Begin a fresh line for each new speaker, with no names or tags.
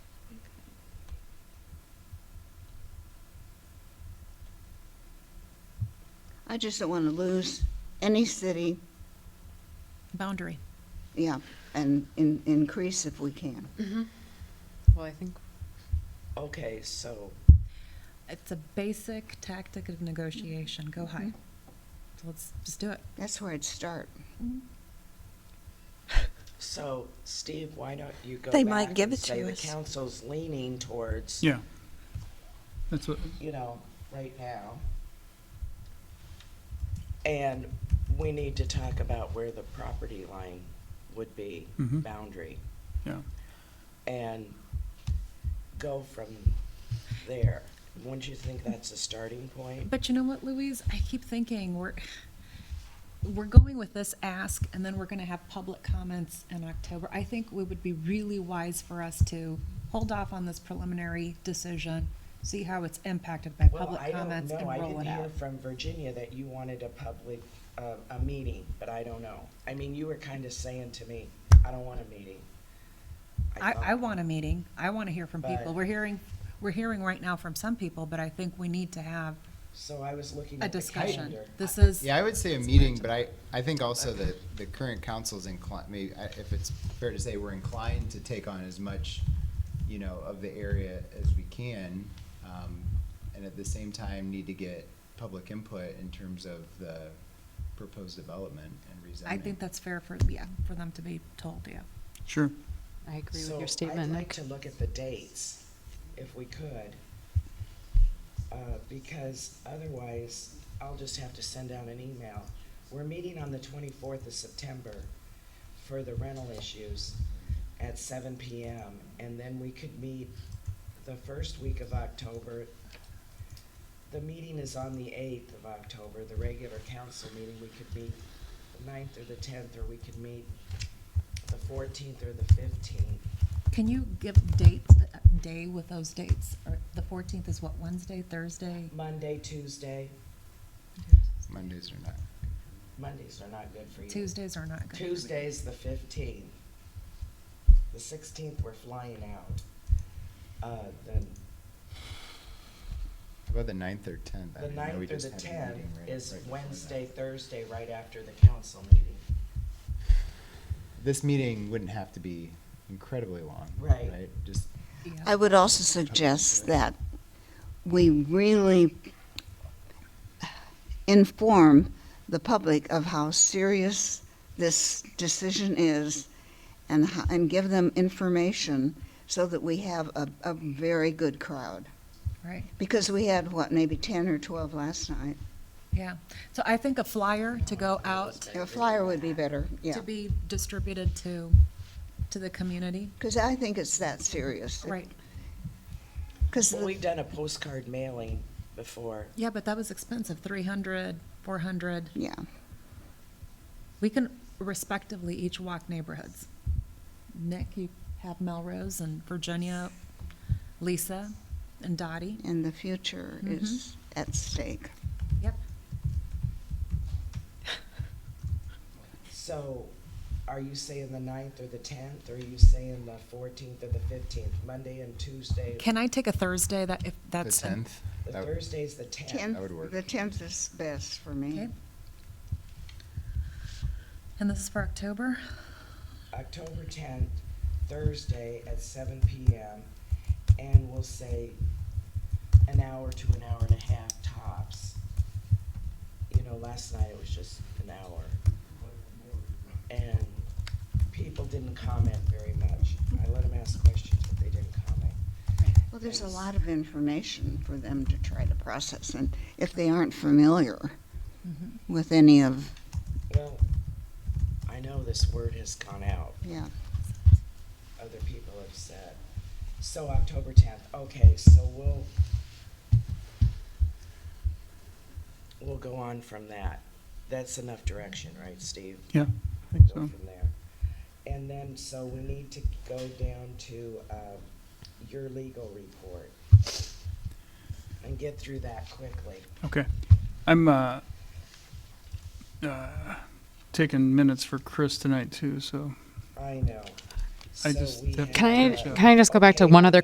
I just don't want to lose any city,
boundary.
yeah, and in, increase if we can.
Well, I think
Okay, so,
It's a basic tactic of negotiation. Go high. So let's just do it.
That's where I'd start.
so Steve, why don't you go
They might
back
give
and
it to
say the
us.
council's leaning towards,
Yeah. That's what,
you know, right now. And we need to talk about where the property line would be,
Mhm.
boundary,
yeah.
and go from there. Wouldn't you think that's a starting point?
But you know what, Louise? I keep thinking we're we're going with this ask, and then we're going to have public comments in October. I think it would be really wise for us to hold off on this preliminary decision, see how it's impacted by
Well,
public
I don't
comments,
know.
and
I
roll
didn't
it
hear
out.
from Virginia that you wanted a public, uh, a meeting, but I don't know. I mean, you were kind of saying to me, I don't want a meeting.
I,
thought-
I want a meeting. I want to hear from
But-
people. We're hearing we're hearing right now from some people, but I think we need to have
So I was looking
a
at the
discussion.
calendar.
This is
Yeah, I would say a meeting, but I, I think also that the current council's inclined, maybe, I- if it's fair to say, we're inclined to take on as much, you know, of the area as we can, um, and at the same time, need to get public input in terms of the proposed development and rezoning.
I think that's fair for, yeah, for them to be told, yeah.
Sure.
I agree
So
with your statement,
I'd like
Nick.
to look at the dates, if we could. Uh, because otherwise, I'll just have to send out an email. We're meeting on the twenty-fourth of September for the rental issues at seven PM. And then we could meet the first week of October. The meeting is on the eighth of October, the regular council meeting. We could meet the 9th or the tenth, or we could meet the fourteenth or the fifteenth.
Can you give dates, uh, day with those dates? Or the fourteenth is what, Wednesday, Thursday?
Monday, Tuesday,
Mondays are not.
Mondays are not good for you.
Tuesdays are not good.
Tuesday's the fifteenth. The sixteenth, we're flying out. Uh, then
How about the ninth or tenth?
the ninth or the tenth
tenth
is Wednesday, Thursday, right after the council meeting.
This meeting wouldn't have to be incredibly long.
Right.
Right, just
Yeah.
I would also suggest that we really inform the public of how serious this decision is and, ho- and give them information so that we have a, a very good crowd.
Right,
Because we had, what, maybe 10 or 12 last night?
yeah. So I think a flyer to go out
A flyer would be better, yeah.
to be distributed to, to the community,
Because I think it's that serious.
right?
Because
Well, We've done a postcard mailing before.
Yeah, but that was expensive, three hundred, four hundred.
yeah,
We can respectively each walk neighborhoods. Nick, you have Melrose and Virginia, Lisa and Dottie.
and the future
Mm-hmm.
is at stake.
Yep.
So are you saying the ninth or the tenth, or are you saying the fourteenth or the fifteenth, Monday and Tuesday?
Can I take a Thursday that, if
the
that's? an-
tenth.
The Thursday's the tenth.
Tenth,
would work.
the tenth is best for me.
Okay. And this is for October?
October tenth, Thursday at seven PM, and we'll say an hour to an hour and a half tops. You know, last night it was just an hour. And people didn't comment very much. I let them ask questions, but they didn't comment.
Well, there's a
Yes.
lot of information for them to try to process, and if they aren't familiar
Mm-hmm.
with any of,
Well, I know this word has gone out,
yeah,
other people have said. So October tenth, okay, so we'll, we'll go on from that. That's enough direction, right, Steve?
Yeah, I think
Go
so.
from there. And then, so we need to go down to, uh, your legal report and get through that quickly.
Okay. I'm uh, uh, taking minutes for Chris tonight too, so.
I know.
I
So
just
we
have to
Can I,
catch up.
can I just go back to
Okay.
one other